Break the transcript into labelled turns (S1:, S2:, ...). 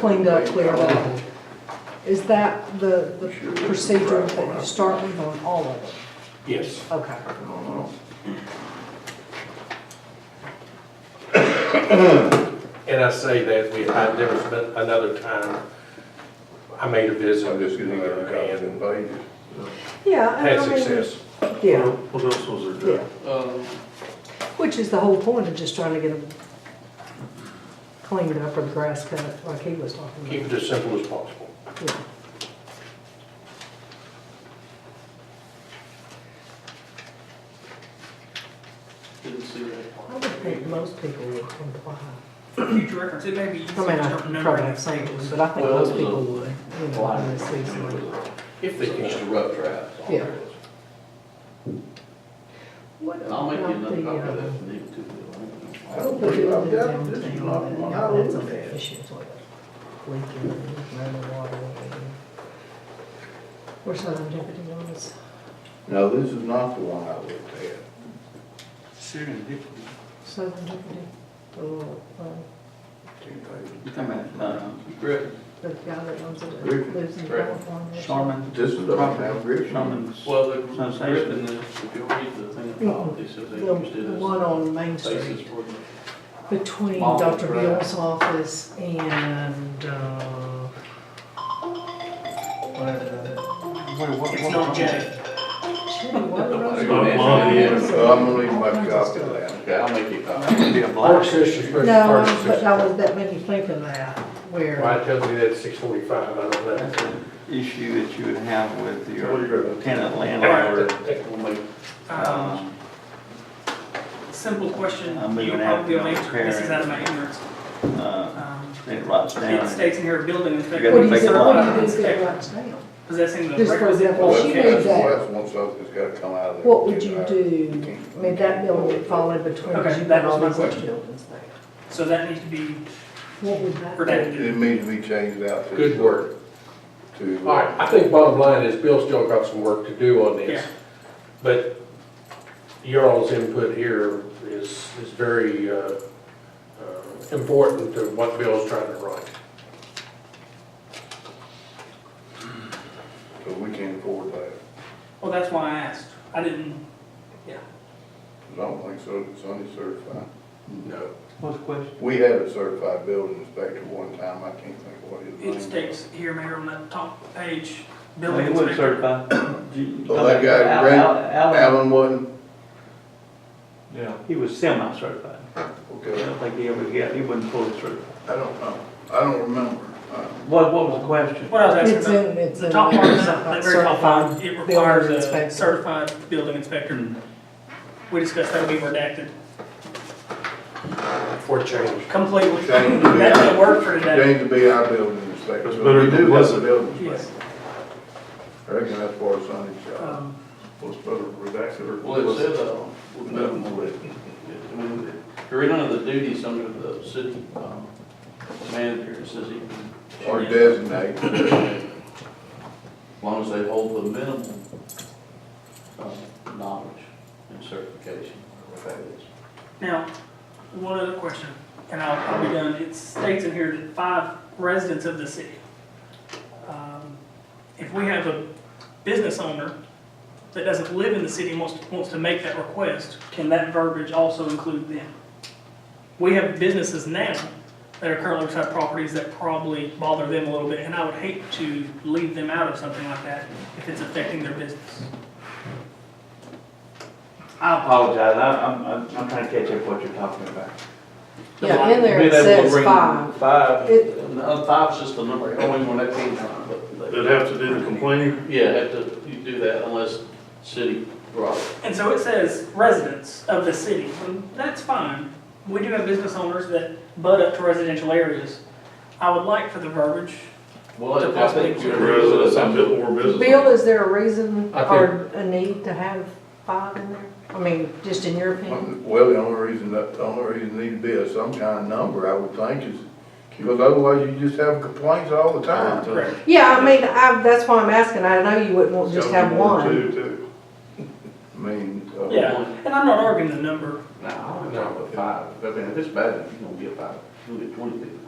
S1: cleaned up, cleared up. Is that the, the procedure that you start with on all of it?
S2: Yes.
S1: Okay.
S2: And I say that we, I've never spent another time, I made a visit.
S3: I'm Oh, just gonna get a
S2: there
S3: copy
S2: and
S3: and pages.
S1: Yeah. and
S2: Had
S1: I mean,
S2: success.
S1: Yeah,
S4: What else was there?
S1: yeah. Which is the whole point of just trying to get them cleaned up or the grass cut, like he was talking
S2: Keep it as simple as possible.
S1: about. Yeah.
S5: Didn't see that.
S1: I would think most people would comply.
S6: Future reference, it may be easy
S1: I mean,
S6: to
S1: I
S6: remember.
S1: probably
S6: in
S1: have
S6: the
S1: seen one,
S6: tables.
S1: but I think
S5: Well, it
S1: most
S5: was a
S1: people would, you know,
S5: line.
S1: when they see someone.
S2: If they
S5: Just a
S2: can.
S5: rough draft.
S1: Yeah. What
S5: And I'll make you
S1: about
S5: another
S1: the,
S5: copy of
S1: uh,
S5: that if you need to.
S3: I don't
S1: What do
S3: think
S1: you
S3: I've
S1: do
S3: got this
S1: downtown?
S3: lot one. I
S1: That's
S3: looked
S1: an
S3: at.
S1: issue, it's like leaking, running water. Where's that on Deputy Lawrence?
S3: No, this is not the one I looked at.
S7: Serendipity.
S1: Southern Deputy, the little, uh,
S3: Two pages.
S7: You talking about, uh,
S5: Griffin,
S1: the guy that owns it,
S3: Rick-
S1: lives in
S5: Rick.
S1: California.
S7: Sharman?
S3: This is the one I'm reading.
S7: Sharman's.
S5: well, the
S7: Sensation.
S5: Griffin, is- if you'll read the thing about this,
S1: The
S5: they used
S1: uh, the
S5: it
S1: one
S5: as
S1: on Main
S5: basis
S1: Street
S5: for the.
S1: between um,
S5: Mall
S1: Dr.
S5: Drive.
S1: Bill's office and, uh,
S7: Whatever that
S4: Wait, what?
S6: It's not J.
S1: Chili Water Rose.
S5: Don't
S4: mind it.
S3: So I'm gonna leave my copy of that.
S5: Okay, I'll make you a copy.
S4: Be a
S2: Park
S4: black.
S2: system.
S1: No, um, but I was, that made me think of that,
S2: Why
S1: where,
S2: it tells me that's six forty-five, I don't know.
S7: That's an issue that you would have with
S3: What do you
S7: your
S3: got?
S7: tenant landlord.
S5: We'll make,
S6: Um,
S7: um,
S6: Simple question,
S7: I'm moving
S6: you'll
S7: out
S6: probably
S7: to
S6: will answer, this is
S7: preparing.
S6: out of my ignorance.
S7: uh,
S6: Um,
S7: It rots
S6: It
S7: down.
S6: states in here, building inspector.
S7: You
S1: what do you
S7: make
S1: say,
S7: a
S1: what
S7: lot
S1: do you
S7: of
S1: think that writes down?
S6: Possessing the
S1: Just for
S6: requisite.
S1: example, Well, she
S3: That's-
S1: reads that.
S3: That's one something's gotta come out of there.
S1: What would you
S3: You
S1: do,
S3: can't-
S1: I mean, that building would fall in between,
S6: Okay,
S1: because you've
S6: that
S1: got all
S6: was
S1: these
S6: my
S1: other
S6: question.
S1: buildings there.
S6: So that needs to be
S1: What would that?
S6: protected.
S3: It needs to be changed out to.
S2: Good work.
S3: To. uh,
S2: All right, I think bottom line is Bill's still got some work to do on this.
S6: Yeah.
S2: But your all's input here is, is very, uh, uh, important to what Bill's trying to write.
S3: So we can't afford that.
S6: Well, that's why I asked. I didn't,
S3: I don't think so, it's only certified.
S2: No.
S7: What's the question?
S3: We had a certified building inspector one time, I can't think what his name
S6: it
S3: was.
S6: states here, Mayor, on that top page, building
S7: It would
S6: inspector.
S7: certify. You-
S3: Well, that guy,
S7: Al-
S3: Brent-
S7: Al- Al-
S3: Alan wasn't,
S7: Yeah, he was semi-certified. I
S3: okay,
S7: don't think he ever, yeah, he wasn't fully certified.
S3: I don't know, I don't remember. Uh,
S7: What, what was the question?
S6: What I was
S1: It's
S6: asking about,
S1: in, it's in.
S6: the top part,
S1: there,
S6: of that
S1: something
S6: that very top
S1: certified
S6: part, it
S1: building
S6: requires a
S1: inspector.
S6: certified building inspector.
S7: Hmm.
S6: We discussed that would be redacted
S2: For change.
S6: completely.
S3: Change the-
S6: That's the word for today.
S3: James to be our building inspector.
S4: It's better
S3: We
S4: than
S3: do have a
S4: wasn't.
S3: Building
S6: Yes.
S3: inspector. I reckon that's for a Sunday job.
S6: Um,
S3: What's better, redacted or?
S5: well, it said, uh, we'll move them with. I mean, if you read under the duties under the city, um, manager, it says he can.
S3: Or designate.
S5: As long as they hold the minimum, um, knowledge and certification, whatever that is.
S6: Now, one other question, and I'll, I'll be done. It states in here that five residents of the city. Um, If we have a business owner that doesn't live in the city and wants, to- wants to make that request, can that verbiage also include them? We have businesses now that are currently beside properties that probably bother them a little bit, and I would hate to leave them out of something like that if it's affecting their business.
S7: I apologize, I- I'm, I'm, I'm trying to catch up what you're talking about.
S1: Yeah, in there it
S7: Being able to
S1: says
S7: bring
S1: five.
S7: Five.
S1: It-
S5: No, uh, five's just the number, only when that came from, but. they-
S4: They'd have to do the complaining.
S5: Yeah, have to, you do that unless city brought it.
S6: And so it says residents of the city, and that's fine. We do have business owners that butt up to residential areas. I would like for the verbiage,
S5: Well,
S6: To
S5: I think
S6: possibly-
S5: you're.
S4: Residents and bit- or business.
S1: Bill, is there a reason
S2: I
S1: or a need to have five in there? I mean, just in your opinion?
S3: Well, the only reason, that the only reason need to be a some kind of number, I would think, is because otherwise you just have complaints all the time.
S6: correct?
S1: Yeah, I mean, I, that's why I'm asking, I know you wouldn't want just have one.
S4: Two, two.
S3: I mean, uh,
S6: Yeah, and I'm not arguing the number.
S5: No, I don't know, but five, I mean, if it's bad, you're gonna get five, you'll get twenty people.